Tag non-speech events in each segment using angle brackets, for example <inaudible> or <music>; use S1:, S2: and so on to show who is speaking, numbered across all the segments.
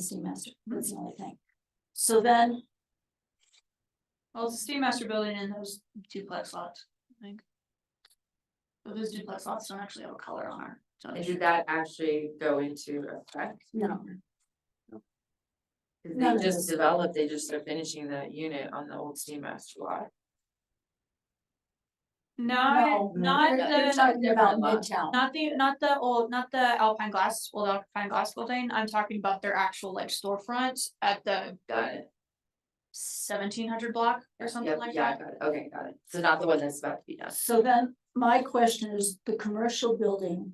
S1: the steam master, that's the only thing. So then. Well, it's the steam master building and those duplex lots, I think. But those duplex lots don't actually have a color on our.
S2: And did that actually go into effect?
S1: No,
S2: 'Cause
S1: None of
S2: They
S1: those.
S2: just developed, they just are finishing that unit on the old steam master lot.
S3: No,
S1: no, not
S3: they're-
S1: the.
S3: They're talking about
S2: Not-
S3: Midtown.
S1: Not the, not the old, not the Alpine Glass, old Alpine Glass building, I'm talking about their actual like storefront at the, Seventeen hundred block or something
S2: Yep,
S1: like
S2: yeah, I
S1: that.
S2: got it. Okay, got it. So not the one that's about to be done.
S3: So then, my question is, the commercial building.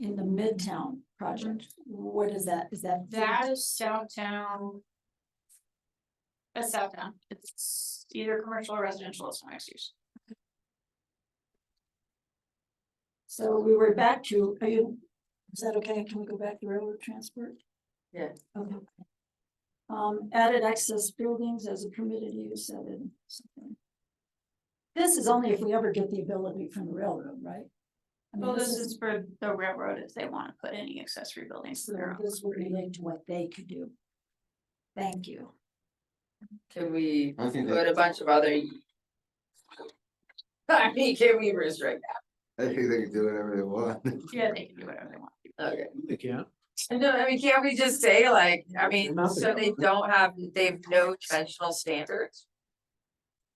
S3: In the Midtown project, what is that? Is that?
S1: That is Southtown. That's Southtown, it's either commercial or residential, it's not mixed use.
S3: So we were back to, are you, is that okay? Can we go back to railroad transport?
S2: Yeah.
S3: Okay. Um, added access buildings as a permitted use added something. This is only if we ever get the ability from the railroad, right? I mean,
S1: Well, this is for the railroad if they wanna put any accessory buildings
S3: So
S1: to their own.
S3: this would relate to what they could do. Thank you.
S2: Can we
S4: I think
S2: put a
S4: that,
S2: bunch of other? <laughs> I mean, can we restrict
S4: I think they can do whatever they want. <laughs>
S1: Yeah, they can do whatever they want.
S2: that? Okay.
S5: They can't.
S2: No, I mean, can't we just say like, I mean,
S5: Not the-
S2: so they don't have, they have no dimensional standards?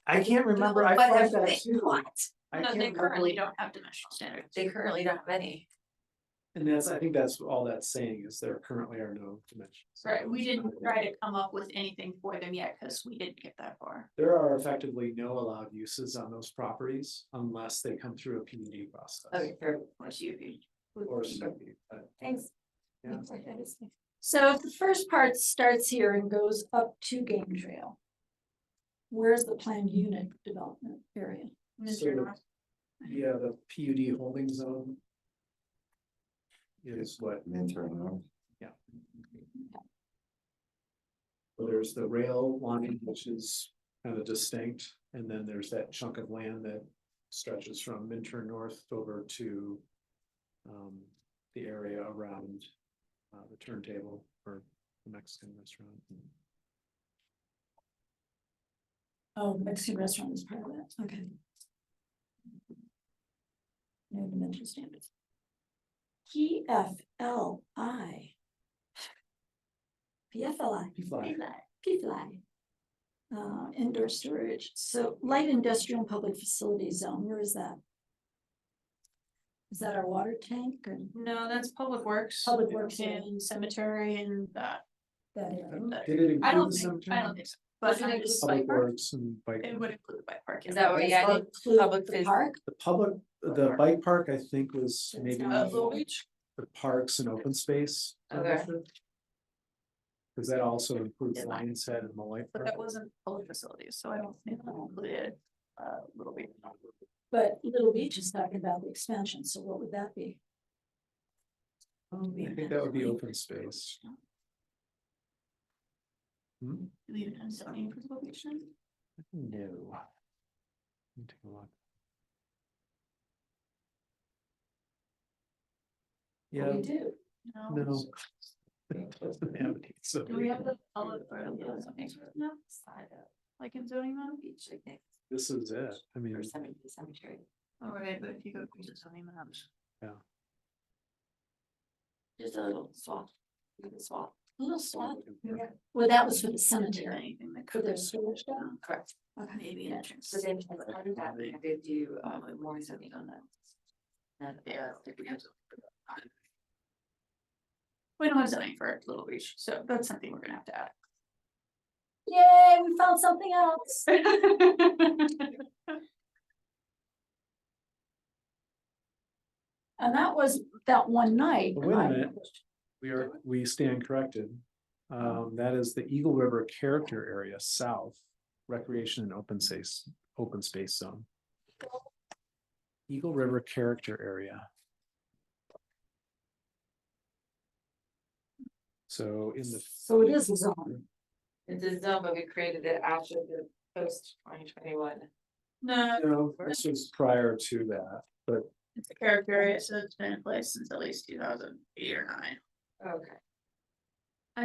S5: I can't remember, I
S2: But
S5: find
S2: if
S5: that
S2: they-
S5: too.
S2: What?
S5: I
S1: No,
S5: can't
S1: they
S5: remember-
S1: currently don't have dimensional standards.
S2: They currently don't have any.
S5: And that's, I think that's all that's saying is there currently are no dimensions.
S1: Right, we didn't try to come up with anything for them yet, cause we didn't get that far.
S5: There are effectively no allowed uses on those properties unless they come through a PUD process.
S2: Okay, fair.
S1: Or CUP.
S5: Or something, but,
S3: Thanks.
S5: yeah.
S3: So if the first part starts here and goes up to Game Trail. Where's the planned unit development area?
S1: Mr.
S5: Sort of.
S1: North,
S5: Yeah, the PUD holding zone. Is what,
S4: Intern,
S5: there's the rail line, which is kind of distinct, and then there's that chunk of land that stretches from Minter North over to. Um, the area around, uh, the turntable or the Mexican restaurant.
S3: Oh, Mexican restaurant is part of that, okay. No dimension standards. P F L I. P F L I.
S5: Be fly.
S3: PFLAG. Uh, indoor storage, so light industrial and public facility zone, where is that? Is that our water tank or
S1: no, that's Public Works.
S3: Public Works, yeah.
S1: And cemetery and that.
S3: that
S5: I
S3: area?
S5: don't- Did it
S1: I don't
S5: include the
S1: think, I don't
S5: cemetery?
S1: think so, but
S3: Wasn't it
S1: it would
S3: just
S1: bike
S5: Public
S1: park,
S5: Works and bike,
S1: it would include the bike park.
S2: Is
S1: Oh, yeah.
S2: that what you
S3: Does that
S2: added?
S3: include
S2: public
S3: the
S2: phys-
S3: Park,
S5: the public, the bike park, I think was
S3: It's
S5: maybe.
S3: not-
S1: Uh, Little Beach,
S5: the parks and open space.
S2: Okay.
S5: membership? Cause that also includes
S1: Yeah.
S5: Lions Head and Malloy
S1: but
S5: Park.
S1: that wasn't public facilities, so I don't think that included, uh, Little Beach.
S3: but Little Beach is talking about the expansion, so what would that be?
S5: I think that would be open space. Hmm?
S1: Do we even have zoning for Little Beach then?
S5: No. Let me take a look. Yeah,
S3: We do,
S5: <laughs> no. Doesn't have any, so-
S1: Do we have the public or the zoning now? Like in zoning map? Beach, I think.
S5: This is it, I mean,
S2: cemetery.
S1: All right, but if you go to zoning maps.
S2: Just a little swath, little swath.
S3: little swamp, well, that was for the cemetery,
S1: Anything that
S3: for
S1: could.
S3: their storage down,
S2: Correct.
S3: okay,
S1: Maybe an entrance.
S2: So then, as part of that, we could do, um, more something on that. That, yeah, if we have to-
S1: We don't have zoning for Little Beach, so that's something we're gonna have to add.
S3: yay, we found something
S1: <laughs>
S3: else. And that was that one night.
S5: But wait a
S3: I-
S5: minute. we are, we stand corrected. Um, that is the Eagle River Character Area South Recreation and Open Space, Open Space Zone. Eagle River Character Area. So in the,
S3: So it is a zone,
S2: It's a zone, but we created it after the post twenty twenty one.
S1: No,
S5: no, this was prior to that,
S1: it's a character, area, so it's been in place since at least two thousand eight or nine.
S2: Okay.